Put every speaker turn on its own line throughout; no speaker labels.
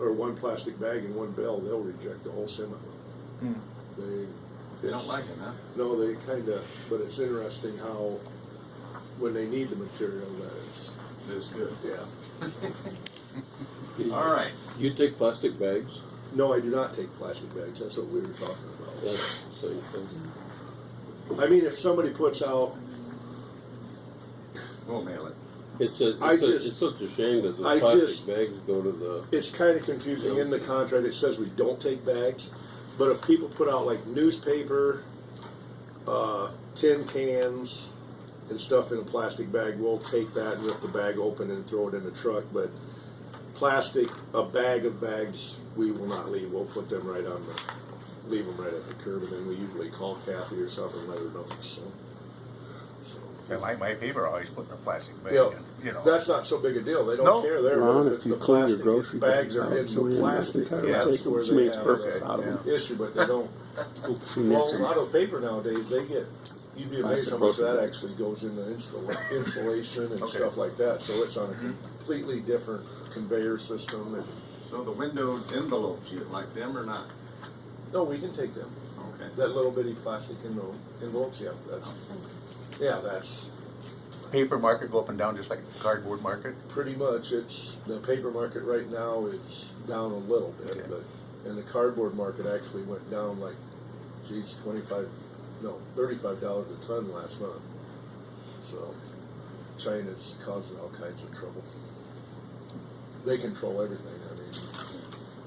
or one plastic bag and one bell, they'll reject the whole semi.
Hmm.
They.
They don't
it's-
like it, huh?
No, they kinda, but it's interesting how, when they need the material, that it's,
That's good.
yeah.
All right.
You take plastic bags,
No, I do not take plastic bags, that's what we were talking about.
that's the same thing.
I mean, if somebody puts out,
We'll mail it.
It's a,
I
it's, a,
just-
it's such a shame that the
I
plastic
just-
bags go to the.
it's kind of confusing in the contract. It says we don't take bags, but if people put out like newspaper, uh, tin cans, and stuff in a plastic bag, we'll take that and rip the bag open and throw it in the truck. But plastic, a bag of bags, we will not leave. We'll put them right on the, leave them right at the curb, and then we usually call Kathy or something, and let her know. So, so
Yeah, my, my paper always put in a plastic bag,
Yeah.
and, you know.
that's not so big a deal. They don't
No.
care. They're
Ron, if you
the
clean your
plastic
grocery
bags
bags
are
out,
in
so
the
we have
plastic.
to
Yeah,
take
that's
them,
where
which
they
makes
have
purpose
that
out of them.
issue, but they don't.
She
Well,
knits
a
'em.
lot of paper nowadays, they get, you'd be amazed how much
Isopropyl.
that actually goes into installa- insulation and
Okay. Mm-hmm.
stuff like that, so it's on a completely different conveyor system and,
So the window envelopes, you like them or not?
no, we can take them.
Okay.
That little bitty plastic envelope, envelopes, yeah, that's, yeah, that's
Paper market go up and down just like cardboard market.
pretty much, it's, the paper market right now is down a little
Okay.
bit, but, and the cardboard market actually went down like, geez, twenty-five, no, thirty-five dollars a ton last month. So China's causing all kinds of trouble. They control everything, I mean,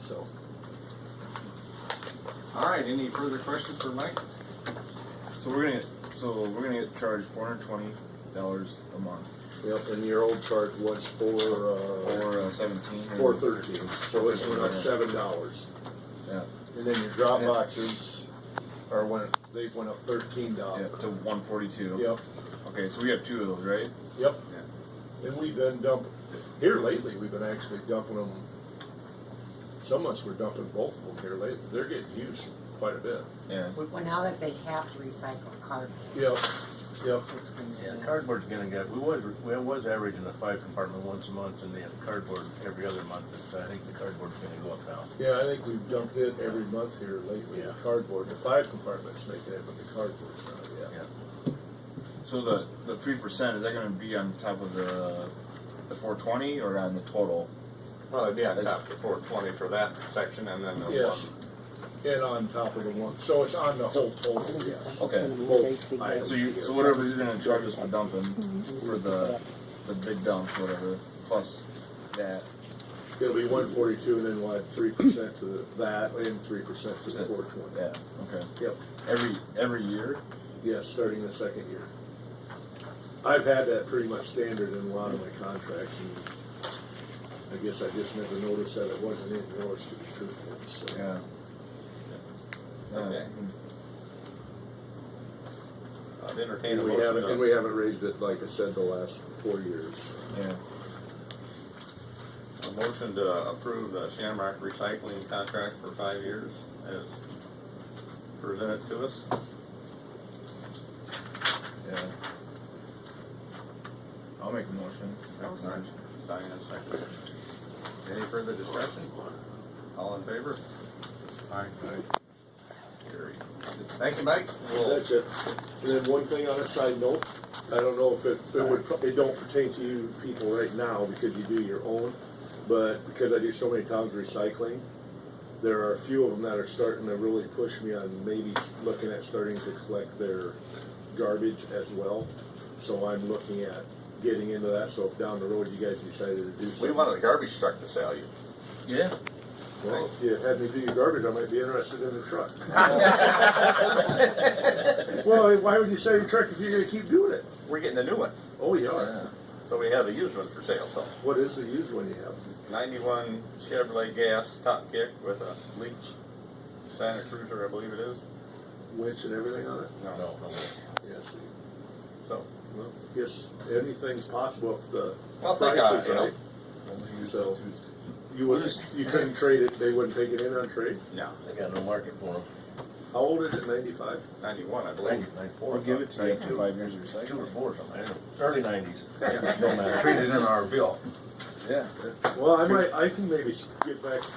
so.
All right. Any further questions for Mike?
So we're gonna get, so we're gonna get charged four hundred twenty dollars a month
Yep, and your old charge was for, uh,
or uh, seventeen. or-
four thirteen, so it's went up seven dollars.
Yeah,
And then your drop boxes are went, they went up thirteen
yeah,
dollars.
to one forty-two.
Yep,
Okay, so we have two of those, right?
yep. And we've been dumping, here lately, we've been actually dumping them. Some months we're dumping both of them here lately. They're getting used quite a bit.
Yeah.
Well, now that they have to recycle cardboard,
Yep, yep.
it's gonna
Yeah,
be.
cardboard's gonna get, we was, we was averaging a five compartment once a month, and they have cardboard every other month, and so I think the cardboard's gonna go up now.
Yeah, I think we've dumped it every month here lately, the cardboard, the five compartments make it, but the cardboard's not, yeah.
So the the three percent is that gonna be on top of the the four twenty or on the total?
Well, it'd be on top for four twenty for that section, and then the
Yes.
one.
And on top of the one, so it's on the whole total, yeah.
Okay.
Both items.
So you so whatever you're gonna charge us for dumping for the the big dumps whatever plus that
It'll be one forty-two, and then we'll add three percent to the- that, and three percent to the
Yeah.
four twenty.
yeah okay
Yep.
every every year
Yes, starting the second year. I've had that pretty much standard in a lot of my contracts, and I guess I just never noticed that it wasn't in yours, to be truthful, so.
yeah. Uh,
Okay. I'd entertain a
And we
motion.
haven't,
to-
and we haven't raised it, like I said, the last four years.
Yeah.
A motion to approve the Shamrock Recycling contract for five years as presented to us.
Yeah. I'll make a motion.
All right, Diane, second. Any further discussion? All in favor? Aye. Carried. Thank you, Mike. We'll-
That's it. And then one thing on a side note, I don't know if it, it would, pro- it don't pertain to you people right now because you do your own, but because I do so many towns recycling, there are a few of them that are starting to really push me on maybe looking at starting to collect their garbage as well. So I'm looking at getting into that, so if down the road you guys decided to do something.
We wanted a garbage truck to sell you.
Yeah.
Well, if you had me do your garbage, I might be interested in the truck. Well, why would you sell your truck if you're gonna keep doing it?
We're getting a new one,
Oh, yeah.
Yeah.
so we have a used one for sale, so.
What is the used one you have?
Ninety-one Chevrolet gas top kick with a leach Santa Cruiser, I believe it is.
Winch and everything on it?
No, no, no.
Yes.
So,
Well, yes, anything's possible if the.
well, think
price
on
is
it, you know.
right. So, you wouldn't, you couldn't trade it, they wouldn't take it in on trade?
No,
They got no market for them.
How old is it, ninety-five?
ninety-one, I believe.
Or give it to you,
Right,
two,
Five years of recycling.
two or four, or something, I don't know. early nineties, no matter.
Treated in our bill.
Yeah.
Well, I might, I can maybe get back